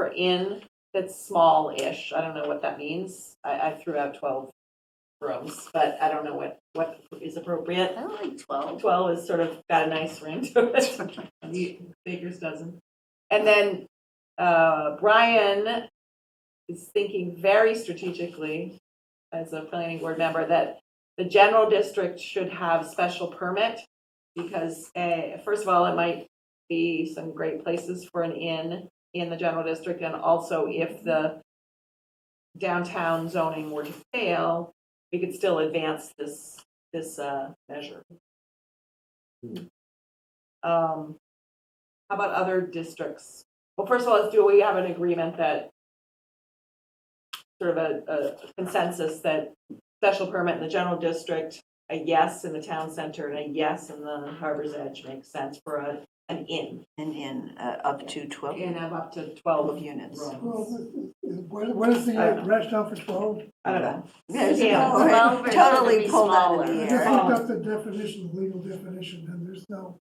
number in that's small-ish, I don't know what that means. I, I threw out twelve rooms, but I don't know what, what is appropriate. I don't like twelve. Twelve is sort of got a nice ring to it, The Baker's dozen. And then, uh, Brian is thinking very strategically as a planning board member that the general district should have special permit because, uh, first of all, it might be some great places for an inn in the general district, and also if the downtown zoning were to fail, we could still advance this, this, uh, measure. Hmm. Um, how about other districts? Well, first of all, let's do, we have an agreement that sort of a, a consensus that special permit in the general district, a yes in the town center, and a yes in the harbor's edge makes sense for a, an inn. And in uh, up to 12 Inn of up to twelve units. rooms. Well, what what is the I don't know. rationale for twelve? I don't know. Yeah, it's Yeah. pulled- Twelve or should it Totally be pulled out of smaller? the Just air. Um, looked up the definition, the legal definition, and there's no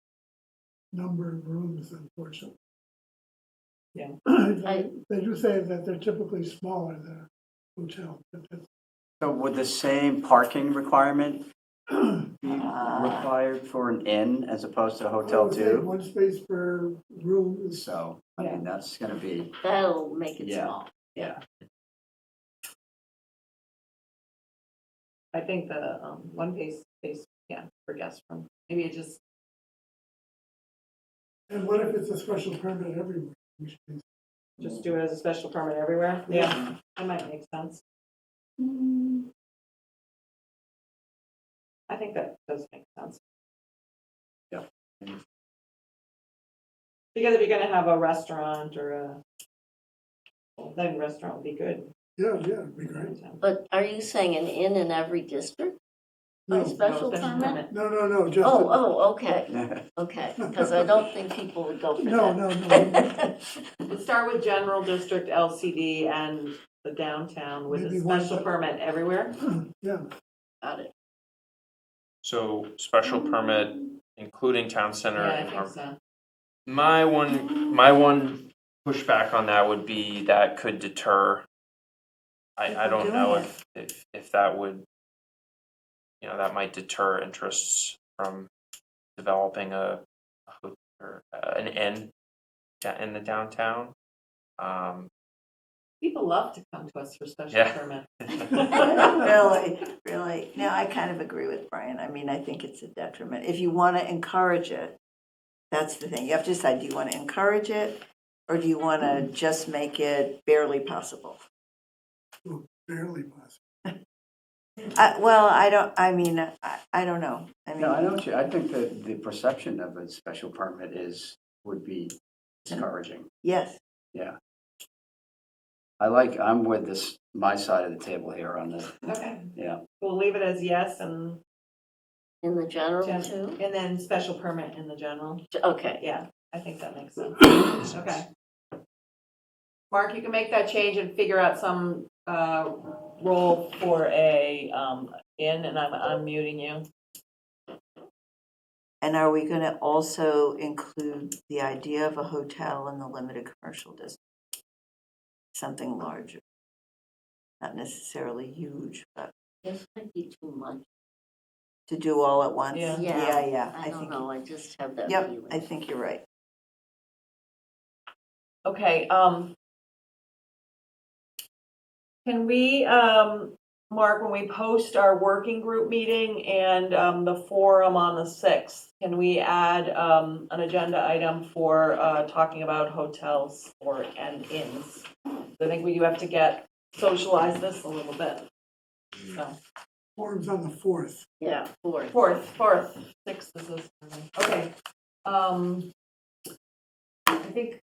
number of rooms, unfortunately. Yeah. They they do say that they're typically smaller than a hotel, but that's- So would the same parking requirement be Ah. required for an inn as opposed to a I hotel would say too? One space per room is So, I mean, that's gonna be, That'll make it Yeah. small. yeah. I think the, um, one case, case, yeah, for guest room, maybe it just, And what if it's a special permit everywhere? Which means- just do it as a special permit everywhere. Yeah. That might make sense. I think that does make sense. Yeah. Because if you're gonna have a restaurant or a, well, then restaurant would be good. Yeah, yeah, it'd be great. But are you saying an inn in every district? No, A special No, permit? no, no, no, just. Oh, oh, okay, Yeah. okay, because I don't think people would go for that. No, no, no. Let's start with general district LCD and the downtown with a Maybe one special sec- permit everywhere. Yeah, Got it. So special permit, including town center Mm-hmm. Yeah, I and think harbor. so. My one, my one pushback on that would be that could deter. I, I don't know if, if, if that would, you know, that might deter interests from developing a, a ho- or uh, an inn da- in the downtown. Um, People love to come to us for special Yeah. permit. Really, really. No, I kind of agree with Brian. I mean, I think it's a detriment. If you want to encourage it, that's the thing. You have to decide, do you want to encourage it? Or do you want to just make it barely possible? barely possible. I, Uh, well, I don't, I mean, I, I don't know. I mean, No, I know what you, I think that the perception of a special permit is, would be discouraging. yes. I like, I'm with this, my side of the table here on this, Okay, yeah. we'll leave it as yes and, In the general Gen- too? and then special permit in the general. Okay, Yeah, I think that makes sense. Okay. Mark, you can make that change and figure out some uh, role for a um, in, and I'm unmuting you. And are we going to also include the idea of a hotel in the limited commercial district? Something larger. Not necessarily huge, but this might be too much. to do all at once? Yeah. Yeah. Yeah, yeah, I I don't think, know, I just have that yep, I feeling. think you're right. Okay, um. Can we, um, Mark, when we post our working group meeting and, um, the forum on the sixth, can we add, um, an agenda item for, uh, talking about hotels or, and inns? I think we do have to get, socialize this a little bit. So, Forum's on the fourth. Yeah, fourth. fourth, fourth, sixth is this, okay, um. I think,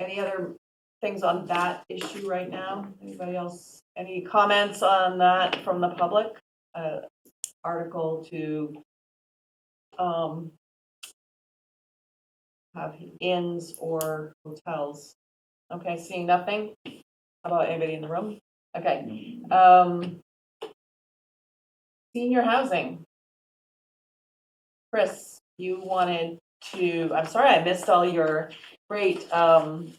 any other things on that issue right now? Anybody else, any comments on that from the public? Uh, article to, um, have inns or hotels. Okay, seeing nothing? How about anybody in the room? Okay, um, senior housing. Chris, you wanted to, I'm sorry, I missed all your great, um,